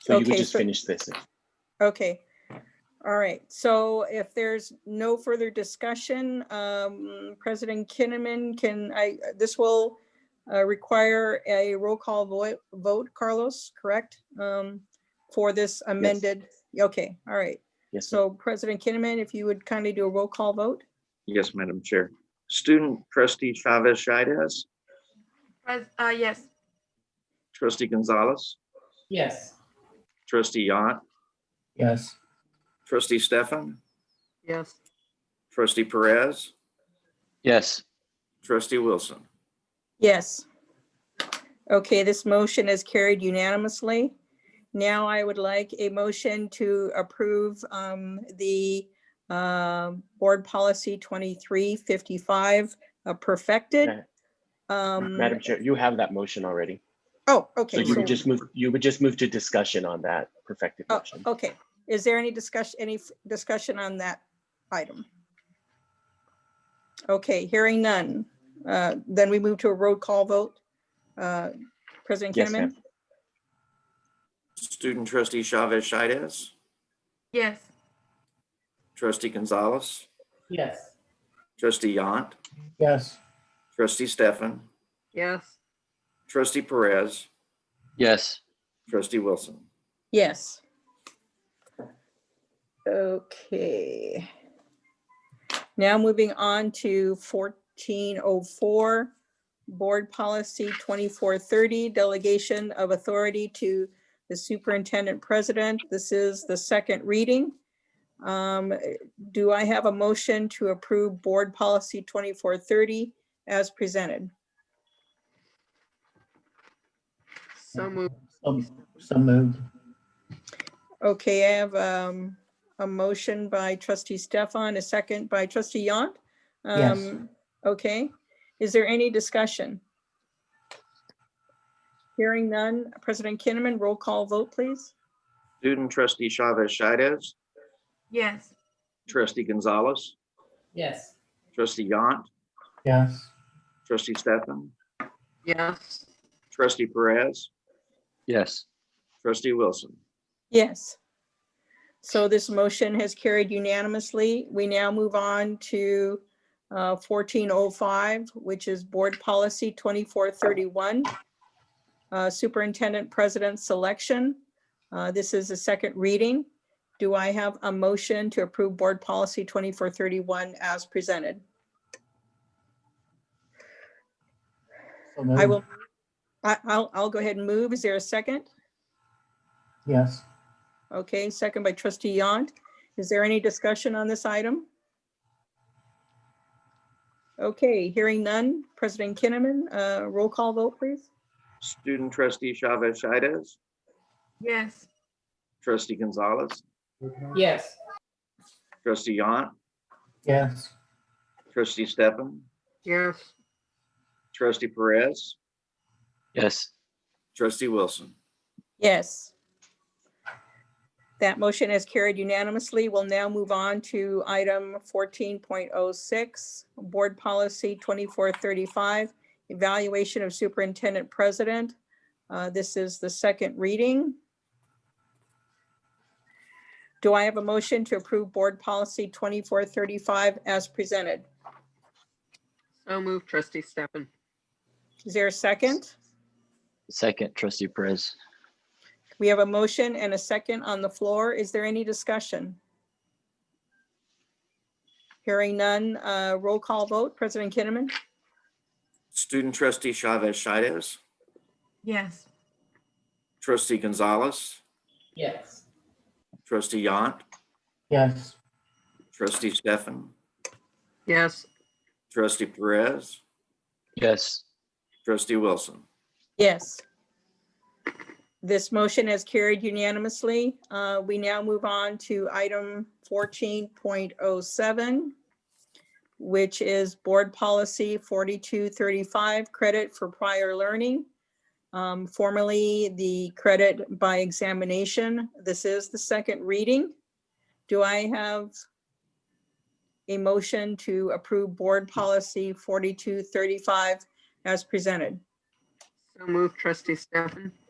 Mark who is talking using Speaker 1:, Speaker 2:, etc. Speaker 1: So you would
Speaker 2: Okay,
Speaker 1: just
Speaker 2: so-
Speaker 1: finish this.
Speaker 2: Okay, all right. So if there's no further discussion, um, President Kinnaman, can I, this will uh, require a roll call vo- vote, Carlos, correct? Um, For this amended, okay, all right.
Speaker 1: Yes, ma'am.
Speaker 2: So President Kinnaman, if you would kindly do a roll call vote?
Speaker 3: Yes, Madam Chair. Student trustee Chavez Shides,
Speaker 4: Pres- uh, yes,
Speaker 3: trustee Gonzalez,
Speaker 5: Yes.
Speaker 3: trustee Yant,
Speaker 5: Yes.
Speaker 3: trustee Stefan,
Speaker 6: yes,
Speaker 3: trustee Perez,
Speaker 7: yes,
Speaker 3: trustee Wilson.
Speaker 2: Yes. Okay, this motion is carried unanimously. Now I would like a motion to approve um, the um, Board Policy 2355 uh, perfected.
Speaker 1: Ma-
Speaker 2: Um,
Speaker 1: Madam Chair, you have that motion already.
Speaker 2: Oh,
Speaker 1: So
Speaker 2: okay.
Speaker 1: you
Speaker 2: so-
Speaker 1: would just move, you would just move to discussion on that perfected
Speaker 2: oh,
Speaker 1: motion.
Speaker 2: Okay, is there any discussion, any f- discussion on that item? Okay, hearing none. Uh, Then we move to a roll call vote. Uh, President
Speaker 1: Yes, ma'am.
Speaker 2: Kinnaman?
Speaker 3: Student trustee Chavez Shides,
Speaker 4: yes,
Speaker 3: trustee Gonzalez,
Speaker 5: Yes.
Speaker 3: trustee Yant,
Speaker 5: Yes.
Speaker 3: trustee Stefan,
Speaker 6: yes,
Speaker 3: trustee Perez,
Speaker 7: yes,
Speaker 3: trustee Wilson.
Speaker 2: Yes. Okay. Now moving on to fourteen oh four, Board Policy twenty-four thirty, Delegation of Authority to the Superintendent President. This is the second reading. Um, Do I have a motion to approve Board Policy twenty-four thirty as presented?
Speaker 6: so moved,
Speaker 5: Um, So moved.
Speaker 2: Okay, I have um, a motion by trustee Stefan, a second by trustee Yant.
Speaker 5: Yes.
Speaker 2: Um, Okay, is there any discussion? Hearing none, President Kinnaman, roll call vote, please.
Speaker 3: Student trustee Chavez Shides,
Speaker 4: yes,
Speaker 3: trustee Gonzalez,
Speaker 5: Yes.
Speaker 3: trustee Yant,
Speaker 5: Yes.
Speaker 3: trustee Stefan,
Speaker 6: yes,
Speaker 3: trustee Perez,
Speaker 7: yes,
Speaker 3: trustee Wilson.
Speaker 2: Yes. So this motion has carried unanimously. We now move on to fourteen oh five, which is Board Policy twenty-four thirty-one. Uh, Superintendent President Selection. Uh, This is the second reading. Do I have a motion to approve Board Policy twenty-four thirty-one as presented?
Speaker 5: So
Speaker 2: I
Speaker 5: moved.
Speaker 2: will, I, I'll, I'll go ahead and move. Is there a second?
Speaker 5: Yes.
Speaker 2: Okay, second by trustee Yant. Is there any discussion on this item? Okay, hearing none. President Kinnaman, uh, roll call vote, please.
Speaker 3: Student trustee Chavez Shides,
Speaker 4: yes,
Speaker 3: trustee Gonzalez,
Speaker 5: Yes.
Speaker 3: trustee Yant,
Speaker 5: Yes.
Speaker 3: trustee Stefan,
Speaker 6: yes,
Speaker 3: trustee Perez,
Speaker 7: yes,
Speaker 3: trustee Wilson.
Speaker 2: Yes. That motion is carried unanimously. We'll now move on to item fourteen point oh six, Board Policy twenty-four thirty-five, Evaluation of Superintendent President. Uh, This is the second reading. Do I have a motion to approve Board Policy twenty-four thirty-five as presented?
Speaker 6: so moved, trustee Stefan,
Speaker 2: Is there a second?
Speaker 7: second trustee Perez,
Speaker 2: We have a motion and a second on the floor. Is there any discussion? Hearing none, uh, roll call vote. President Kinnaman.
Speaker 3: Student trustee Chavez Shides,
Speaker 4: yes,
Speaker 3: trustee Gonzalez,
Speaker 5: Yes.
Speaker 3: trustee Yant,
Speaker 5: Yes.
Speaker 3: trustee Stefan,
Speaker 6: yes,
Speaker 3: trustee Perez,
Speaker 7: yes,
Speaker 3: trustee Wilson.
Speaker 2: Yes. This motion is carried unanimously. Uh, We now move on to item 14.07, which is Board Policy 4235, Credit for Prior Learning, um, formerly the Credit by Examination. This is the second reading. Do I have a motion to approve Board Policy 4235 as presented?
Speaker 6: so moved, trustee Stefan,